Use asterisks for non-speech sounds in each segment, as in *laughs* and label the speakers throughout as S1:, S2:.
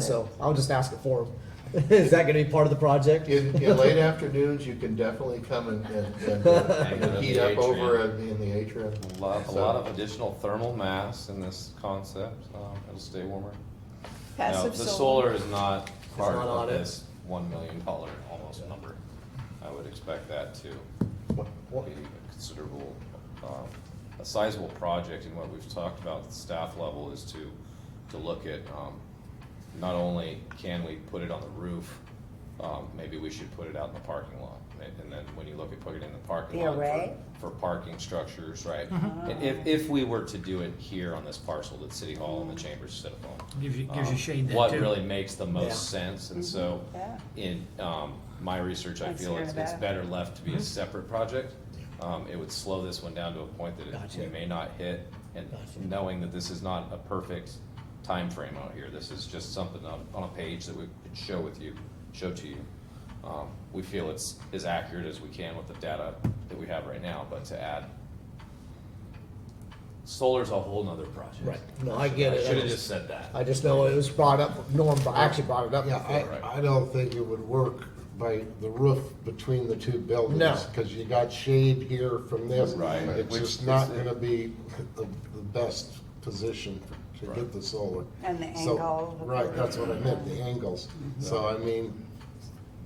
S1: So I'll just ask it for them. *laughs* Is that gonna be part of the project?
S2: In, in late afternoons, you can definitely come and, and- and uh,
S3: *laughs* Hang out in
S2: heat
S3: the
S2: up
S3: atrium.
S2: over at the- in the atrium.
S3: A lot, a
S2: So-
S3: lot of additional thermal mass in this concept, um, it'll stay warmer. Now,
S4: Passive
S3: The solar is not part
S1: not on
S3: of
S1: it.
S3: this one million dollar almost number. I would expect that to
S2: What- what-
S3: be a considerable, um, a sizable project, and what we've talked about at the staff level is to, to look at, um, not only can we put it on the roof, um, maybe we should put it out in the parking lot, and and then when you look at putting it in the parking
S4: The
S3: lot. for-
S4: array?
S3: For parking structures, right? And If, if we were to do it here on this parcel at City Hall in the Chambers City Hall.
S5: Gives you, gives you
S3: um,
S5: shade there too.
S3: What really makes the
S1: Yeah. Mm-hmm.
S3: most sense, and so,
S4: Yeah.
S3: in, um, my research, I
S4: Let's
S3: feel
S4: hear
S3: it's,
S4: about
S3: it's
S4: it.
S3: better left to be
S1: Mm-hmm.
S3: a separate project. Um, it would slow this one down to a point that it- we
S1: Gotcha.
S3: may not hit, and
S1: Gotcha.
S3: knowing that this is not a perfect time frame out here, this is just something on, on a page that we could show with you, show to you. Um, we feel it's as accurate as we can with the data that we have right now, but to add, solar's a whole nother project.
S1: Right, no, I get it. I
S3: Should've
S1: just-
S3: just said that.
S1: *laughs* I just know it was brought up, Norm actually brought it up
S6: Yeah,
S1: before.
S3: right.
S6: I, I don't think it would work by the roof between the two buildings.
S1: No.
S6: Because you got shade here from this.
S3: Right.
S6: It's
S3: Which
S6: just not
S3: is-
S6: gonna be the, the best position to
S3: Right.
S6: get the solar.
S4: And the
S6: So-
S4: angle.
S6: Right, that's what I meant, the angles.
S1: Mm-hmm.
S6: So I mean,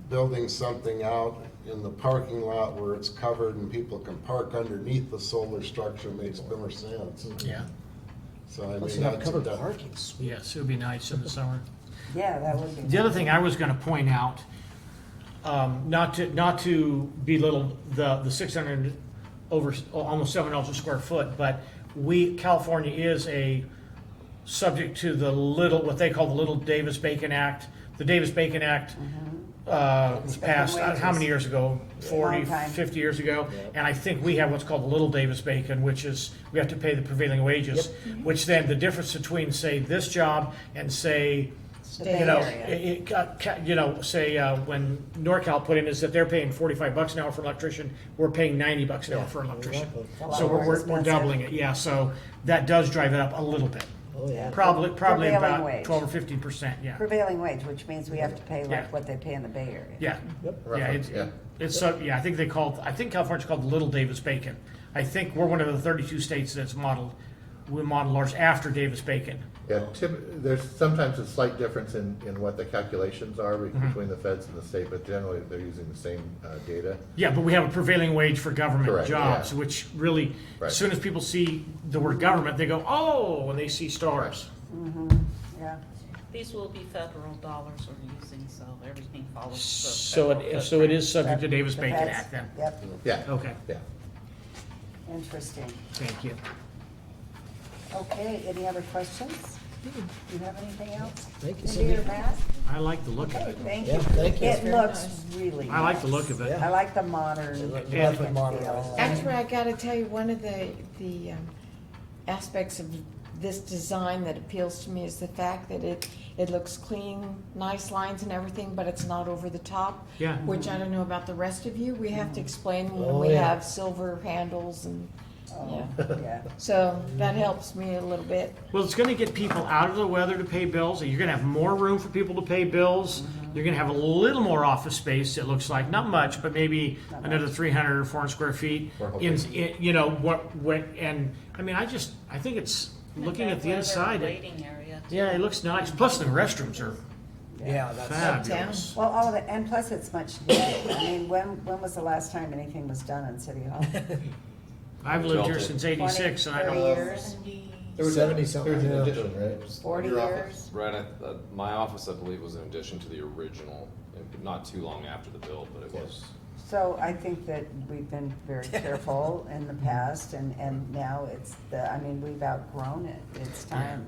S6: building something out in the parking lot where it's covered and people can park underneath the solar structure makes more sense.
S5: Yeah,
S6: So I mean.
S1: Plus you have
S6: that's-
S1: covered parking, sweet.
S5: yes, it would be nice in the summer.
S4: Yeah, that would be.
S5: The other thing I was gonna point out, um, not to, not to belittle the, the six hundred over, almost seven dollars a square foot, but we, California is a, subject to the little, what they call the Little Davis Bacon Act. The Davis Bacon Act,
S4: Mm-hmm.
S5: uh, was
S4: Bacon
S5: passed, uh, how many
S4: wages.
S5: years ago? Forty,
S4: Long time.
S5: fifty years ago? And I think we have what's called the Little Davis Bacon, which is, we have to pay the prevailing wages. Which then, the difference between, say, this job and say,
S4: Bay
S5: you know,
S4: Area.
S5: it- it got ca- you know, say, uh, when NorCal put in is that they're paying forty-five bucks an hour for an electrician, we're paying ninety bucks an hour for an electrician.
S1: exactly. It's a
S4: lot
S5: So we're,
S4: more
S5: we're- we're
S4: expensive.
S5: doubling it, yeah, so that does drive it up a little bit.
S1: Oh, yeah.
S5: Probably, probably
S4: Prevailing
S5: about
S4: wage.
S5: twelve or fifteen percent, yeah.
S4: Prevailing wage, which means we have to pay
S5: Yeah.
S4: like what they pay in the Bay Area.
S5: Yeah,
S1: Yep.
S5: yeah, it's,
S2: Yeah.
S5: it's, so- yeah, I think they called, I think California's called the Little Davis Bacon. I think we're one of the thirty-two states that's modeled, we model ours after Davis Bacon.
S7: Yeah, typ- there's sometimes a slight difference in, in what the calculations are be-
S1: Mm-hmm.
S7: between the feds and the state, but generally they're using the same uh, data.
S5: Yeah, but we have a prevailing wage for government
S7: Correct,
S5: jobs,
S7: yeah.
S5: which really,
S7: Right.
S5: as soon as people see the word government, they go, oh, when they see stars.
S4: Yeah.
S8: These will be federal dollars we're using, so everything follows the.
S5: So
S8: federal
S5: it, so it is subject to
S4: That-
S5: Davis
S4: the
S5: Bacon
S4: feds-
S5: Act then.
S4: Yep,
S7: Yeah,
S5: Okay,
S7: yeah.
S4: interesting.
S5: thank you.
S4: Okay, any other questions? Do you have anything else?
S1: Thank you,
S4: Cindy or
S1: Cindy.
S4: Matt?
S5: I like the look of
S4: Okay,
S5: it.
S4: thank
S1: Yeah,
S4: you.
S1: thank you. It's
S4: It
S1: very
S4: looks really
S5: I like the look
S4: nice.
S5: of it.
S1: Yeah.
S4: I like the modern.
S1: Look-
S4: look
S1: lovely
S4: and
S1: model.
S4: feel.
S9: Actually, I gotta tell you, one of the, the um, aspects of this design that appeals to me is the fact that it, it looks clean, nice lines and everything, but it's not over the top.
S5: Yeah.
S9: Which I don't know about the rest of you, we have to explain
S1: Oh,
S9: when we
S1: yeah.
S9: have silver handles and, yeah.
S4: Oh, Yeah.
S9: So that helps me a little bit.
S5: Well, it's gonna get people out of the weather to pay bills, and you're gonna have more room for people to pay bills.
S8: Mm-hmm.
S5: You're gonna have a little more office space, it looks like, not much, but maybe another three hundred or four hundred square feet.
S7: We're hoping.
S5: In, in- you know, what, what, and, I mean, I just, I think it's, looking at the
S8: Weather
S5: inside, it-
S8: Waiting area.
S5: yeah, it looks nice, plus the restrooms are
S1: Yeah, that's,
S5: fabulous.
S4: Well, all of it, and plus it's much needed. I mean, when, when was the last time anything was done in City Hall?
S5: I've lived here since eighty-six, and I don't,
S4: 20, 30 years,
S7: There was-
S1: seventy something.
S7: There was an
S1: yeah.
S7: addition, right?
S4: forty
S7: Your office?
S4: years.
S3: Right, I- uh, my office, I believe, was in addition to the original, and not too long after the build, but it was.
S4: So I think that we've been
S7: *laughs*
S4: very careful in the past and, and now it's the, I mean, we've outgrown it. It's time.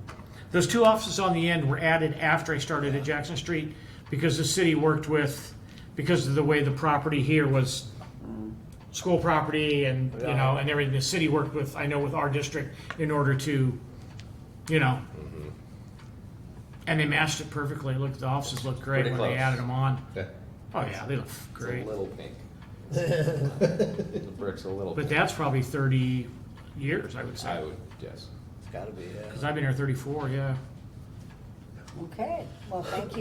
S5: those two offices on the end were added after I started at Jackson Street, because the city worked with, because of the way the property here was school property and, you know, and everything, the city worked with, I know with our district, in order to, you know.
S3: Mm-hmm.
S5: And they matched it perfectly, looked, the offices looked great
S3: Pretty
S5: when they
S3: close.
S5: added them on.
S7: Yeah.
S5: Oh, yeah, they look
S3: It's
S5: great.
S3: a little pink. the brick's a little.
S5: But
S3: pink.
S5: that's probably thirty years, I would
S3: I
S5: say,
S3: would yes.
S1: It's gotta be, yeah.
S5: because I've been here thirty-four, yeah.
S4: Okay, well, thank you.